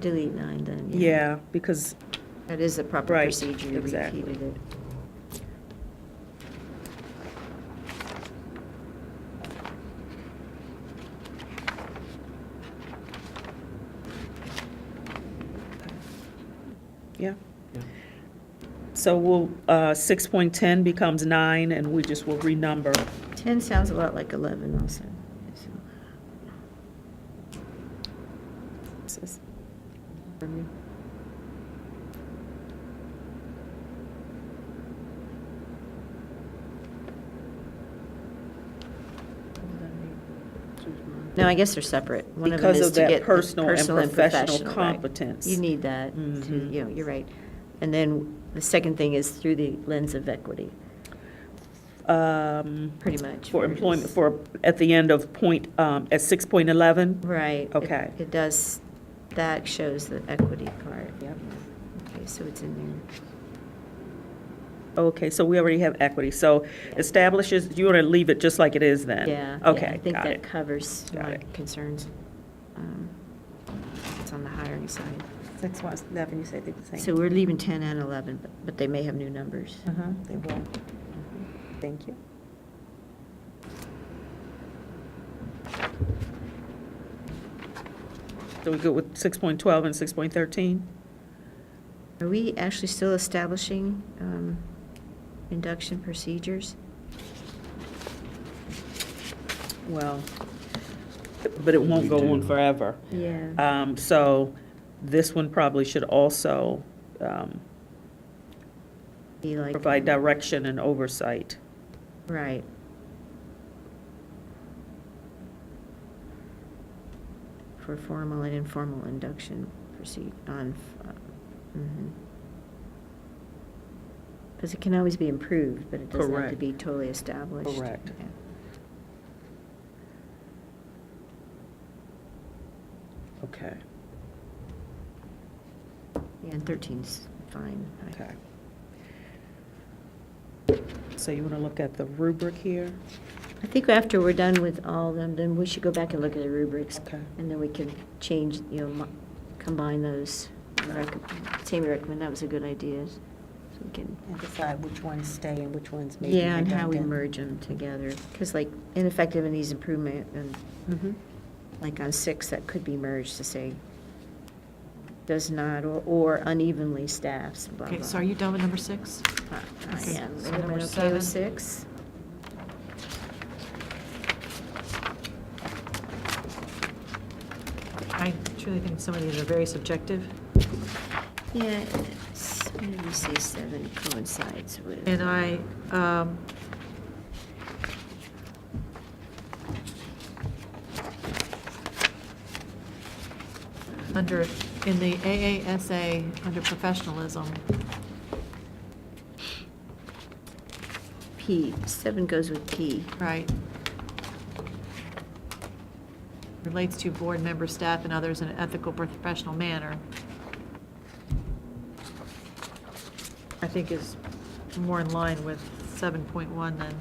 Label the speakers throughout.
Speaker 1: delete nine then, yeah.
Speaker 2: Yeah, because,
Speaker 1: That is the proper
Speaker 2: Right,
Speaker 1: procedure, you
Speaker 2: exactly.
Speaker 1: repeated it.
Speaker 2: yeah. So we'll, uh, 6.10 becomes 9, and we just will renumber.
Speaker 1: 10 sounds a lot like 11 also. so. No, I guess they're separate. One of them
Speaker 2: Because
Speaker 1: is
Speaker 2: of
Speaker 1: to
Speaker 2: that
Speaker 1: get the
Speaker 2: personal and professional
Speaker 1: right.
Speaker 2: competence.
Speaker 1: You need that, to-
Speaker 2: Mhm.
Speaker 1: you know, you're right. And then the second thing is through the lens of equity,
Speaker 2: Um,
Speaker 1: pretty much.
Speaker 2: For
Speaker 1: where it
Speaker 2: employment,
Speaker 1: is.
Speaker 2: for, at the end of point, um, at 6.11?
Speaker 1: Right. it-
Speaker 2: Okay.
Speaker 1: It does, that shows the equity part.
Speaker 2: Yep.
Speaker 1: Okay, so it's in there.
Speaker 2: Okay, so we already have equity. So establishes, you want to leave it just like it is then?
Speaker 1: Yeah. yeah,
Speaker 2: Okay,
Speaker 1: I think
Speaker 2: got
Speaker 1: that
Speaker 2: it.
Speaker 1: covers
Speaker 2: Got
Speaker 1: my
Speaker 2: it.
Speaker 1: concerns. Um, It's on the hiring side.
Speaker 3: Six one, eleven, you say they're the same.
Speaker 1: So we're leaving 10 and 11, but- but they may have new numbers.
Speaker 3: Uh-huh, they will. Thank you.
Speaker 2: So we go with 6.12 and 6.13?
Speaker 1: Are we actually still establishing um, induction procedures?
Speaker 2: Well, but it won't
Speaker 4: We
Speaker 2: go on
Speaker 4: do.
Speaker 2: forever.
Speaker 1: Yeah.
Speaker 2: Um, So this one probably should also um,
Speaker 1: Be like-
Speaker 2: provide direction and oversight.
Speaker 1: Right. For formal and informal induction proceed on, uh, because it can always be improved, but it doesn't have to
Speaker 2: Correct.
Speaker 1: be totally established.
Speaker 2: Correct.
Speaker 1: Yeah.
Speaker 2: Okay,
Speaker 1: Yeah, and 13's fine. I-
Speaker 2: okay. So you want to look at the rubric here?
Speaker 1: I think after we're done with all of them, then we should go back and look at the rubrics.
Speaker 2: Okay.
Speaker 1: And then we can change, you know, mo- combine those. Rec- Tammy recommend, that was a good idea. So we can,
Speaker 3: And decide which ones stay and which ones may be
Speaker 1: yeah, and how we
Speaker 3: redundant.
Speaker 1: merge them together. Because like ineffective and ease improvement and
Speaker 2: Mm-hmm.
Speaker 1: like on six, that could be merged to say does not or- or unevenly staffs, blah, blah.
Speaker 5: Okay, so are you done with number six?
Speaker 1: I I
Speaker 5: okay,
Speaker 1: am.
Speaker 5: so
Speaker 1: Everyone
Speaker 5: number
Speaker 1: okay with
Speaker 5: seven.
Speaker 1: six?
Speaker 5: I truly think some of these are very subjective,
Speaker 1: Yeah, it's- maybe say seven coincides with.
Speaker 5: and I, um, under, in the AASA, under professionalism,
Speaker 1: P, seven goes with P.
Speaker 5: right? Relates to board member, staff, and others in an ethical, professional manner. I think is more in line with seven point one than.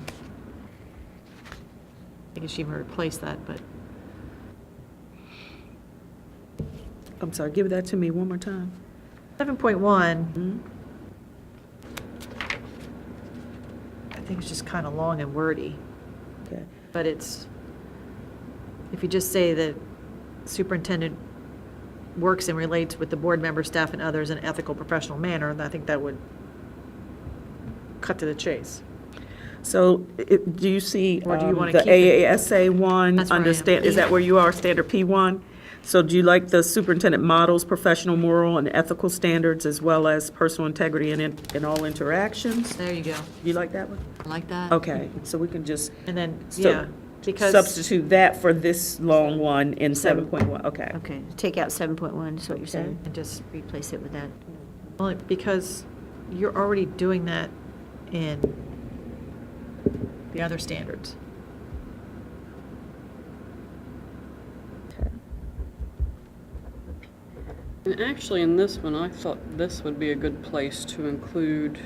Speaker 5: I guess she even replaced that, but
Speaker 2: I'm sorry, give that to me one more time.
Speaker 5: seven point one,
Speaker 2: Hmm?
Speaker 5: I think is just kind of long and wordy.
Speaker 2: Okay,
Speaker 5: But it's, if you just say that superintendent works and relates with the board member, staff, and others in an ethical, professional manner, I think that would cut to the chase.
Speaker 2: so it- do you see
Speaker 5: Or do you
Speaker 2: um,
Speaker 5: wanna
Speaker 2: the
Speaker 5: keep it?
Speaker 2: AASA one?
Speaker 5: That's where I am.
Speaker 2: Understand, is that where you are, standard P one? So do you like the superintendent models, professional moral and ethical standards, as well as personal integrity in, in in all interactions?
Speaker 5: There you go.
Speaker 2: You like that one?
Speaker 5: I Like that?
Speaker 2: Okay, so we can just
Speaker 5: And then,
Speaker 2: So,
Speaker 5: yeah, because,
Speaker 2: substitute that for this long one in
Speaker 1: Seven.
Speaker 2: 7.1, okay.
Speaker 1: Okay, take out seven point one, is what you're saying.
Speaker 5: and just,
Speaker 1: Replace it with that.
Speaker 5: only because you're already doing that in the other standards.
Speaker 6: And actually, in this one, I thought this would be a good place to include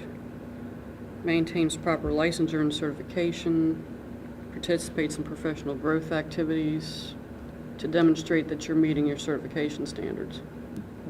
Speaker 6: maintains proper licensure and certification, participates in professional growth activities to demonstrate that you're meeting your certification standards.